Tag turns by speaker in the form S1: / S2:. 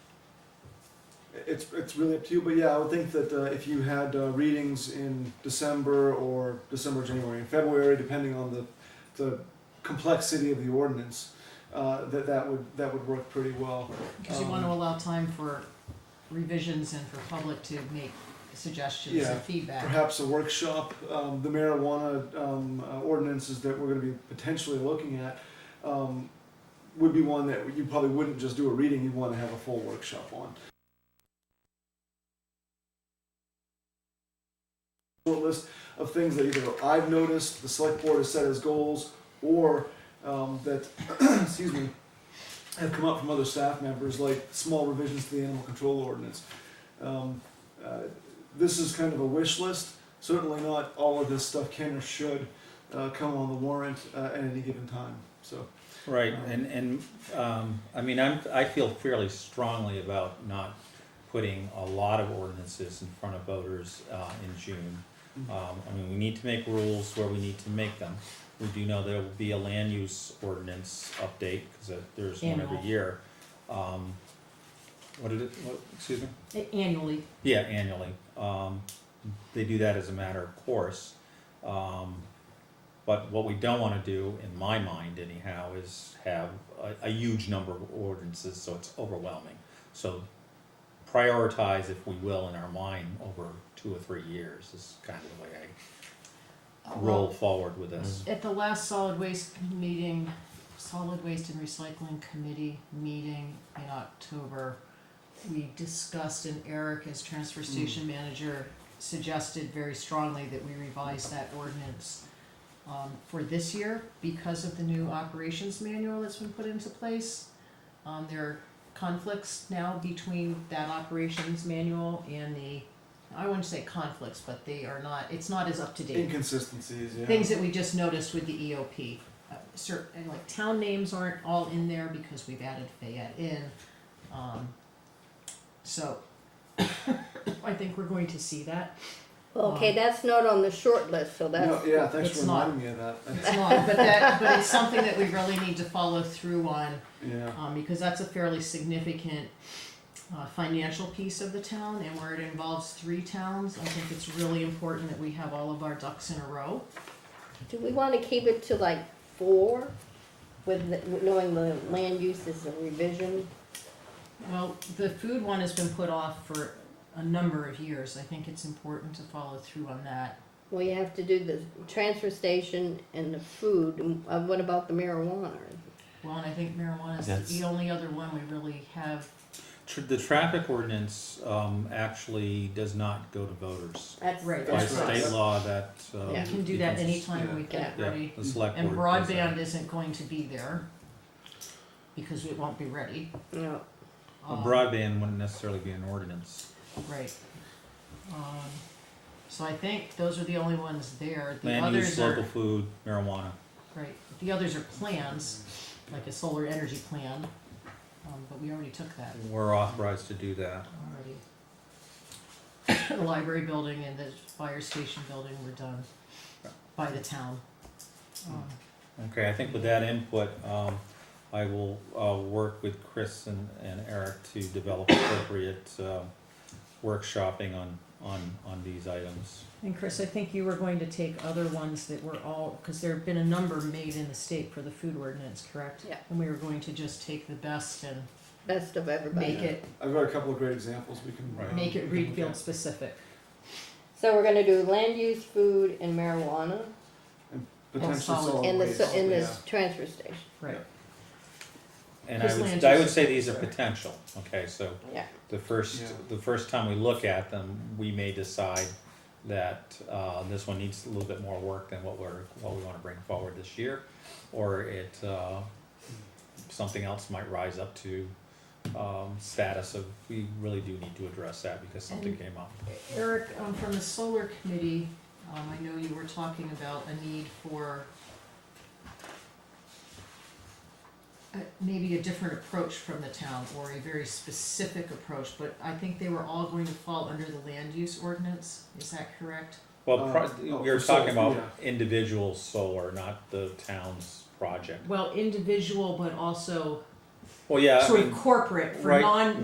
S1: it's it's really up to you. But yeah, I would think that uh, if you had uh, readings in December or December, January, and February, depending on the the complexity of the ordinance, uh, that that would that would work pretty well.
S2: Because you
S1: Um,
S2: want to allow time for revisions and for public to make suggestions
S1: Yeah,
S2: and feedback.
S1: Perhaps a workshop. Um, the marijuana um, uh, ordinances that we're going to be potentially looking at. Um, would be one that you probably wouldn't just do a reading, you'd want to have a full workshop on. Short list of things that either I've noticed, the select board has set as goals, or um, that, excuse me, have come up from other staff members, like small revisions to the animal control ordinance. Um, uh, This is kind of a wish list, certainly not all of this stuff can or should uh, come on the warrant uh, at any given time, so.
S3: Right, and, and, um, I mean, I'm, I feel fairly strongly about not putting a lot of ordinances in front of voters, uh, in June. Um, I mean, we need to make rules where we need to make them. We do know there will be a land use ordinance update, cause uh, there's one every
S2: Annual.
S3: year. Um, what did it, what, excuse me?
S2: Annually,
S3: Yeah, annually. Um, they do that as a matter of course. Um, but what we don't wanna do, in my mind anyhow, is have a, a huge number of ordinances, so it's overwhelming. So prioritize, if we will, in our mind, over two or three years is kind of the way I roll forward with
S1: mm-hmm.
S3: this.
S2: at the last solid waste meeting, solid waste and recycling committee meeting in October, we discussed and Eric as transfer station manager suggested very strongly that we revise that ordinance um, for this year because of the new operations manual that's been put into place. Um, there are conflicts now between that operations manual and the, I wouldn't say conflicts, but they are not, it's not as up to date
S1: Inconsistencies, yeah.
S2: things that we just noticed with the EOP. Uh, cer- and like town names aren't all in there because we've added Fayette in. Um, so I think we're going to see that.
S4: Okay, that's not on the short list, so
S1: Uh-huh. No,
S4: that's,
S1: yeah, thanks
S2: it's
S1: for
S2: not-
S1: reminding me of that. That's-
S2: It's long, but that, but it's something that we really need to follow through on,
S1: Yeah,
S2: um, because that's a fairly significant uh, financial piece of the town, and where it involves three towns, I think it's really important that we have all of our ducks in a row.
S4: do we wanna keep it to like four? With, the- with knowing the land use is a revision?
S2: Well, the food one has been put off for a number of years. I think it's important to follow through on that.
S4: Well, you have to do the transfer station and the food, and uh, what about the marijuana?
S2: Well, and I think marijuana is
S3: That's-
S2: the only other one we really have.
S3: Tr- The traffic ordinance, um, actually does not go to voters.
S4: That's.
S2: Right,
S3: By
S1: That's right.
S3: state law, that, uh.
S2: We can do that
S3: becomes-
S2: anytime we get
S3: Yeah,
S2: ready.
S3: the select
S2: And
S3: board does that.
S2: broadband isn't going to be there because it won't be ready.
S4: No,
S3: A
S2: Um,
S3: broadband wouldn't necessarily be an ordinance.
S2: Right. Um, So I think those are the only ones there. The
S3: Land use,
S2: others
S3: local
S2: are,
S3: food, marijuana.
S2: right, the others are plans, like a solar energy plan. Um, but we already took that.
S3: We're authorized to do that.
S2: already. The library building and the fire station building were done by the town. Um,
S3: Okay, I think with that input, um, I will, uh, work with Chris and, and Eric to develop appropriate, um, workshopping on, on, on these items.
S2: And Chris, I think you were going to take other ones that were all, because there have been a number made in the state for the food ordinance, correct?
S4: Yeah.
S2: And we were going to just take the best and
S4: best of everybody.
S2: make it,
S1: I've got a couple of great examples we can. uh,
S2: make it
S1: we can look
S2: Reedfield
S1: at.
S2: specific.
S4: So we're gonna do land use, food, and marijuana,
S1: Potentially
S2: solid
S1: solid
S4: and the, s-
S1: waste,
S4: and
S1: yeah.
S4: this transfer station,
S2: Right.
S3: And I
S2: Chris
S3: would,
S2: Lantis-
S3: I would say these are potential, okay, so
S4: yeah.
S3: the first,
S1: Yeah.
S3: the first time we look at them, we may decide that, uh, this one needs a little bit more work than what we're, what we wanna bring forward this year. Or it, uh, something else might rise up to, um, status of, we really do need to address that because something
S2: And-
S3: came up.
S2: Eric, um, from the solar committee, um, I know you were talking about a need for uh, maybe a different approach from the town, or a very specific approach, but I think they were all going to fall under the land use ordinance, is that correct?
S3: Well, pro-
S1: Um, oh,
S3: we were
S1: for solar,
S3: talking about
S1: yeah.
S3: individual solar, not the town's project.
S2: Well, individual, but also
S3: Well, yeah, I
S2: sort
S3: mean-
S2: of corporate, for
S3: right.
S2: non,